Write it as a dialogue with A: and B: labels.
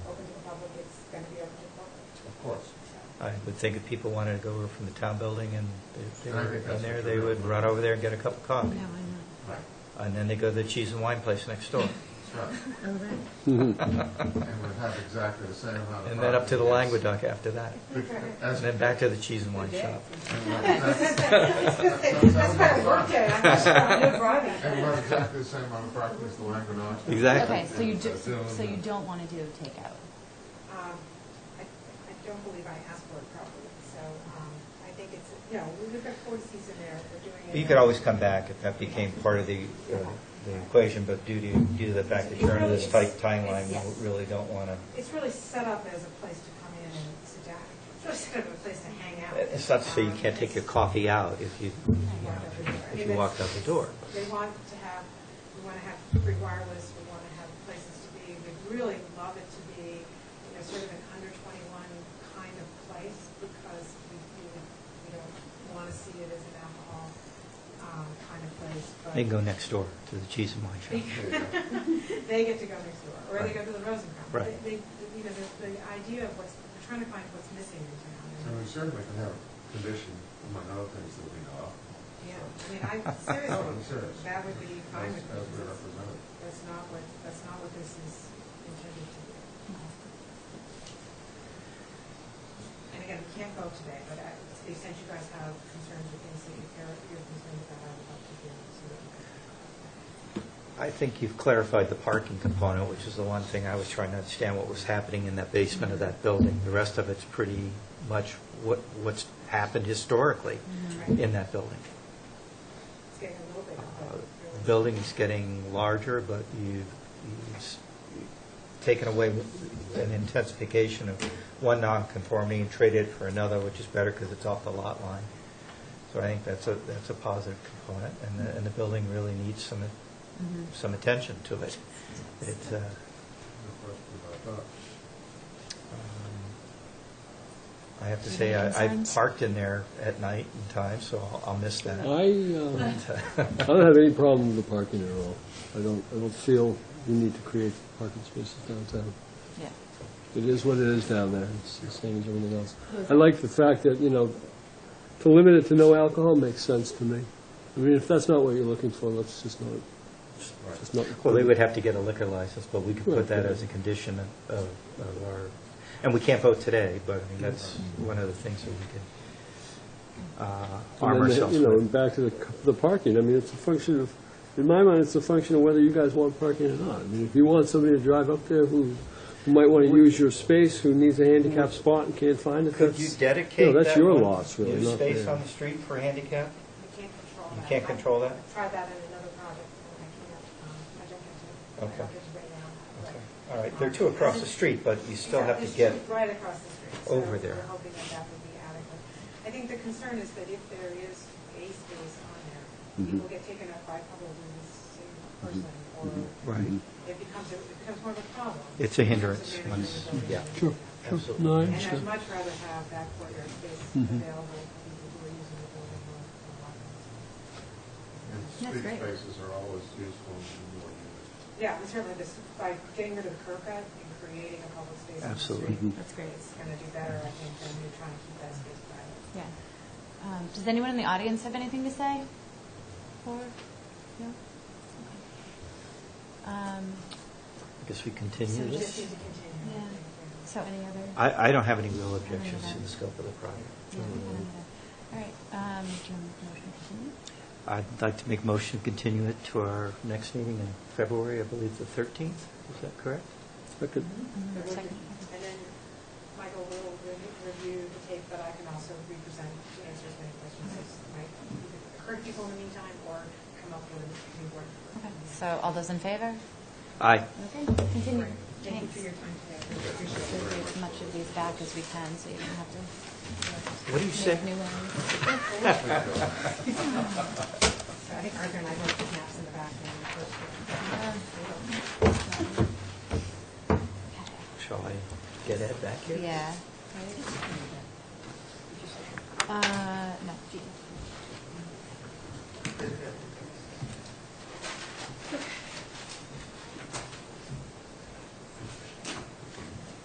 A: I would think if people wanted to go over from the town building and they- they
B: And I
A: were
B: think that's
A: in there,
B: what
A: they
B: they're
A: would
B: doing.
A: run over there and get a cup of
C: Yeah,
A: coffee.
C: why
B: Right,
A: And then they go to the cheese and wine place next door.
B: that's right.
C: not? All right.
B: And we'd have exactly the same amount of.
A: And then up to the
B: property, yes.
A: Languedoc after that. And
B: As-
A: then back to the cheese and wine shop.
D: That's what I worked at, I'm just uh, trying to drive it.
B: And we'll have exactly the same amount of property as the Languedoc.
A: Exactly.
E: Okay, so you do,
B: Zoom
E: so you
B: and-
E: don't want to do takeout?
D: Um, I I don't believe I asked for it properly, so um, I think it's, you know, we've got four seats in there, we're doing it.
A: You could always come back if that became part of the, uh, the equation, but due to, due to the fact that you're under this tight timeline, we really don't want to.
D: It's really set up as a place to come in and sit down, it's really set up as a place to hang out.
A: It's not to say you
D: Um,
A: can't take your
D: it's-
A: coffee out if you, you
D: you
A: know,
D: walk out the door. I
A: if
D: mean, that's- They
A: you walked out the door.
D: want to have, we want to have free wireless, we want to have places to be, we'd really love it to be, you know, sort of an under twenty-one kind of place, because we, we, we don't want to see it as an alcohol, um, kind of place, but.
A: They can go next door to the cheese and wine shop.
D: They get to go next door, or they
A: Right.
D: go to the Rosencrantz.
A: Right.
D: They, they- you know, the, the idea of what's, we're trying to find what's missing in town. and-
B: And we certainly can have condition, among other things, that we know of. Oh,
D: Yeah, I mean, I, seriously,
B: Serious.
D: that would be fine
B: As
D: with me.
B: as we
D: because
B: represent it.
D: That's not what, that's not what this is intended to be.
A: Mm-hmm.
D: And again, we can't vote today, but I- to the extent you guys have concerns with things that you're, you're concerned about, I would love to hear. so that we can-
A: I think you've clarified the parking component, which is the one thing I was trying to understand what was happening in that basement of that building. The rest of it's pretty much what, what's happened historically in that building.
D: It's getting a little bit.
A: Uh,
D: but
A: The
D: really-
A: building's getting larger, but you've you've s- taken away an intensification of one nonconformity and traded it for another, which is better because it's off the lot line. So I think that's a, that's a positive component, and the, and the building really needs some, some attention to it. It,
B: No
A: uh,
B: question about that.
A: I have to say, I- I've parked in there at night and times, so I'll- I'll miss
F: I,
A: that.
F: uh, I don't have any problem with the parking at all. I don't, I don't feel the need to create parking spaces downtown.
E: Yeah.
F: It is what it is down there, it's the same as everything else. I like the fact that, you know, to limit it to no alcohol makes sense to me. I mean, if that's not what you're looking for, let's just not, just not.
A: Well, they would have to get a liquor license, but we could put
F: Right.
A: that as a condition of- of of our, and we can't vote today, but I mean, that's one of the things that we could uh,
F: And
A: arm
F: then the-
A: ourselves
F: You know,
A: with.
F: and back to the, c- the parking, I mean, it's a function of, in my mind, it's a function of whether you guys want parking or not. I mean, if you want somebody to drive up there who, who might want to use your space, who needs a handicap spot and can't find it,
A: Could you
F: that's,
A: dedicate
F: that's
A: that
F: your
A: one
F: lots, really,
A: new
F: not
A: space
F: theirs.
A: on the street for handicap?
D: We can't control
A: You
D: that.
A: can't
D: I-
A: control that?
D: I've tried that in another project, and I can't, um, I don't have to, I
A: Okay.
D: don't get to right now. but-
A: Okay. All right, there are two across the street, but you still have to
D: It's
A: get,
D: Right across the street. so
A: over there.
D: We're hoping that that would be adequate. I think the concern is that if there is a space on there,
A: Mm-hmm.
D: people get taken up by probably the same person, or
A: right,
D: it becomes, a- it becomes more of a problem.
A: Mm-hmm. It's a
D: in terms of
A: hindrance
D: managing
A: once-
D: the building.
A: yeah.
F: Sure.
A: absolutely.
F: no, I
D: And I'd
F: understand.
D: much rather have that courtyard space
A: Mm-hmm.
D: available for people who are using the building more than one.
B: And
E: That's
B: street
E: great.
B: spaces are always useful in more units.
D: Yeah, and certainly this, by getting rid of the curb cut and creating a public space on the
A: Absolutely. Mm-hmm.
D: street,
E: That's great.
D: it's going to do better, I think, than you're trying to keep that space private.
E: Yeah. Um, Does anyone in the audience have anything to say? Or, no? Okay. Um,
A: I guess we continue
E: So
D: We
A: this.
D: just need to continue.
E: Yeah. So any other?
A: I, I don't have any real objections to the scope of the
E: Yeah,
A: project.
E: none of that. All right. um, do you want to make a motion to continue?
A: I'd like to make motion to continue it to our next meeting in February, I believe the 13th, is that correct?
F: I could-
E: Mhm.
D: There will be-
E: Second.
D: And then Michael will re- review the tape, but I can also represent the answers to any questions that might occur to people in the meantime or come up with a new word.
E: Okay. So all those in favor?
A: Aye.
E: Okay, continue.
D: Thank you for your
E: Thanks.
D: time today. I really
E: So
D: appreciate it.
E: we get as much of these back as we can, so you don't have
A: What do you
E: to
A: say?
E: make new ones.
D: So I think Arthur and I both have maps in the back. and we're both-
A: Shall I get Ed back here?
E: Yeah. Uh, no.